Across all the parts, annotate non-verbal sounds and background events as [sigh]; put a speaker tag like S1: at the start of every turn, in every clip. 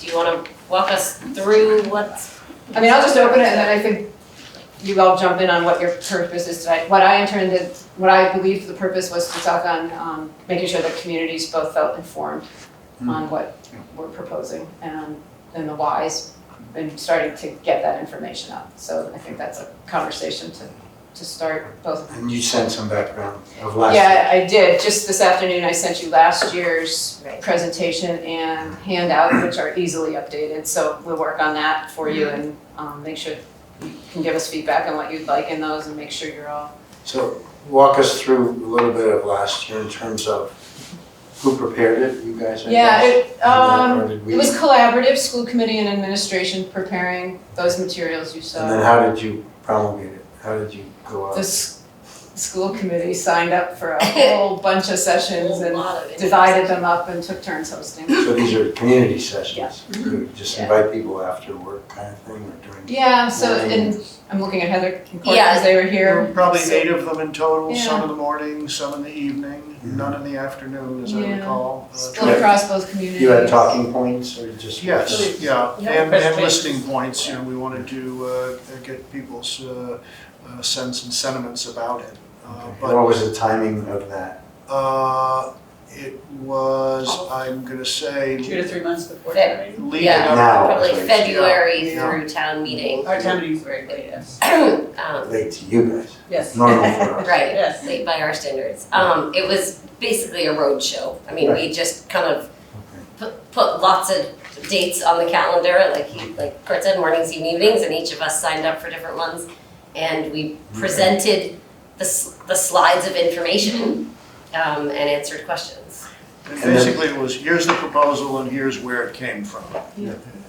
S1: you wanna walk us through what's?
S2: I mean, I'll just open it and then I think you all jump in on what your purpose is tonight. What I intended, what I believe the purpose was to talk on, um, making sure that communities both felt informed on what we're proposing and, and the whys and starting to get that information out. So I think that's a conversation to, to start both
S3: And you sent some background of last.
S2: yeah, I did. Just this afternoon, I sent you last year's
S1: Right.
S2: presentation and handout, which are easily updated. So we'll work on that for you and um, make sure you can give us feedback on what you'd like in those and make sure you're all.
S3: So walk us through a little bit of last year in terms of who prepared it, you guys? I
S2: Yeah,
S3: guess?
S2: it,
S3: Or
S2: um,
S3: did we-
S2: it was collaborative, school committee and administration preparing those materials you
S3: And then
S2: saw.
S3: how did you promulgate it? How did you go
S2: The
S3: out?
S2: s- school committee signed up for a whole bunch of sessions
S1: A
S2: and
S1: lot of it.
S2: divided them up and took turns hosting.
S3: So these are community sessions. Good. Just
S2: Yeah.
S3: invite people after work kind of thing or during.
S2: Yeah, so,
S3: morning.
S2: and I'm looking at Heather and Court
S1: Yeah.
S2: because they were here.
S4: Probably
S2: So-
S4: eight of them in total,
S2: Yeah.
S4: some in the morning, some in the evening,
S3: Mhm.
S4: none in the afternoon, as I
S2: Yeah.
S4: recall. Uh,
S2: Split across both communities.
S3: You had talking points or just?
S4: Yes, yeah, and, and
S1: Presentation.
S4: listening points, you know, we wanted to, uh, get people's, uh, uh, sense and sentiments about it. Uh,
S3: Okay.
S4: But,
S3: What was the timing of that?
S4: uh, it was, I'm gonna say,
S5: Two to three months before
S1: That-
S5: town meeting.
S4: leading
S1: Yeah.
S4: up
S3: Now.
S1: Probably
S3: Yeah.
S1: February
S4: Yeah.
S1: through town meeting.
S5: Our town meeting's very late, yes.
S1: Um,
S3: Late to you guys,
S5: Yes.
S2: [laughs]
S3: normal for us.
S1: Right,
S5: Yes.
S1: late by our standards. Um, it was basically a roadshow. I mean, we just kind of put, put lots of dates on the calendar, like he, like Kurt said, mornings, and evenings, and each of us signed up for different ones. And we presented the, s- the slides of information, um, and answered questions.
S4: And basically it was, here's the proposal and here's where it came from.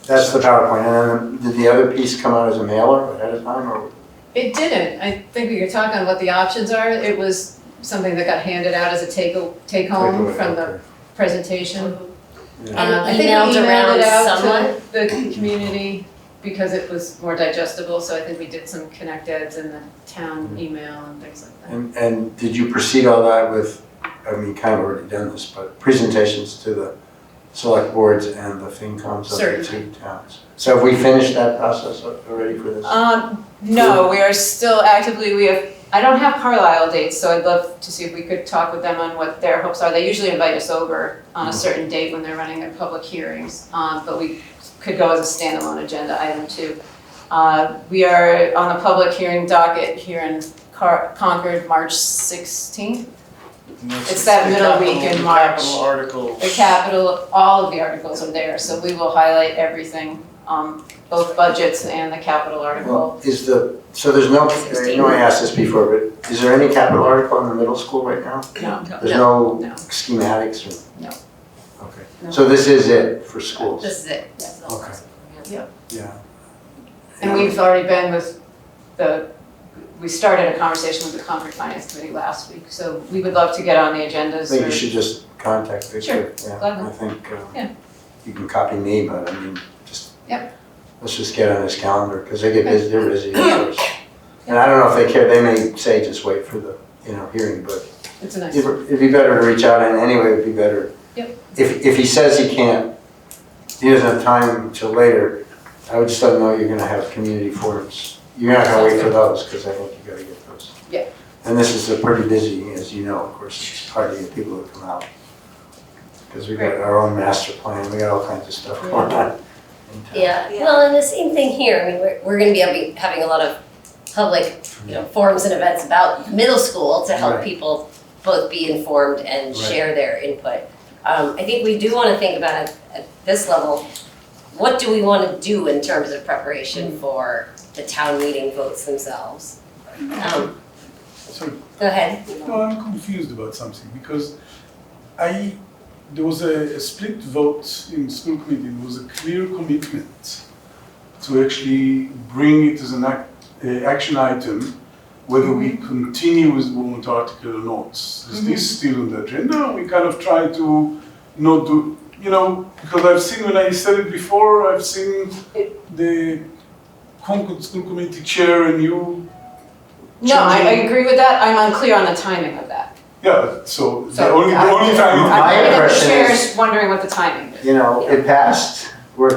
S3: That's the PowerPoint. And then did the other piece come out as a mailer ahead of time or?
S2: It didn't, I think we could talk on what the options are, it was something that got handed out as a take, take home from the presentation.
S3: Yeah.
S1: And
S2: Um, I think we
S1: emailed around
S2: emailed it
S1: someone?
S2: out to the community because it was more digestible, so I think we did some connect eds in the town email and things like that.
S3: And, and did you proceed all that with, I mean, kind of already done this, but presentations to the select boards and the FinComs of the two
S2: Certainly.
S3: towns? So have we finished that process already for this?
S2: Um, no, we are still actively, we have, I don't have Carlisle dates, so I'd love to see if we could talk with them on what their hopes are. They usually invite us over on a certain date when they're running their public hearings, um, but we could go as a standalone agenda item too. Uh, we are on the public hearing docket here in Car- Concord, March sixteenth.
S4: And that's
S2: It's that
S4: the
S2: middle
S4: capital-
S2: week in
S4: the
S2: March.
S4: Capital articles.
S2: The capital, all of the articles are there, so we will highlight everything, um, both budgets and the capital article.
S3: Well, is the, so there's no, I know I asked this before, but is there any capital article in the middle school right now?
S2: No,
S3: There's no
S2: No.
S3: schematics or?
S2: No. No.
S3: Okay, so this is it for schools?
S1: This is it. This is all.
S3: Okay. Yeah.
S2: And we've already been with the, we started a conversation with the Concord Finance Committee last week, so we would love to get on the
S3: I
S2: agendas.
S3: think you
S2: or-
S3: should just contact Victor. Yeah,
S2: gladly.
S3: I think, um,
S2: Yeah.
S3: you can copy me, but I mean, just.
S2: Yep.
S3: Let's just get on his calendar, because they get busy, they're busy. of course. And
S2: Yeah.
S3: I don't know if they care, they may say just wait for the, you know, hearing, but
S2: It's a nice,
S3: it'd it'd be better to reach out, and anyway, it'd be better.
S2: Yep.
S3: If, if he says he can't, he doesn't have time till later, I would just let him know you're gonna have community forums. You're not gonna wait for those, because I think you gotta get those.
S2: Yeah.
S3: And this is a pretty busy, as you know, of course, it's hard to get people to come out. Because we got our own master plan, we got all kinds of stuff going on. in town.
S1: Yeah, well, and the same thing here, I mean, we're, we're gonna be having, having a lot of public, you know, forums and events about middle school to help
S3: Right.
S1: people both be informed and
S3: Right.
S1: share their input. Um, I think we do wanna think about at, at this level, what do we wanna do in terms of preparation for the town meeting votes themselves? Um,
S6: So,
S1: go ahead.
S6: no, I'm confused about something because I, there was a, a split vote in school committee, there was a clear commitment to actually bring it as an act, uh, action item, whether we continue with warrant article or not. Is this still on the agenda? We kind of try to not do, you know, because I've seen when I said it before, I've seen the Concord School Committee Chair and you
S2: no, I, I agree with that, I'm unclear on the timing of that.
S6: Yeah, so the
S2: So,
S6: only, the
S2: I-
S6: only
S3: My
S6: time,
S2: I'm
S3: impression
S2: the chair
S3: is-
S2: wondering what the timing is.
S3: You know, it passed,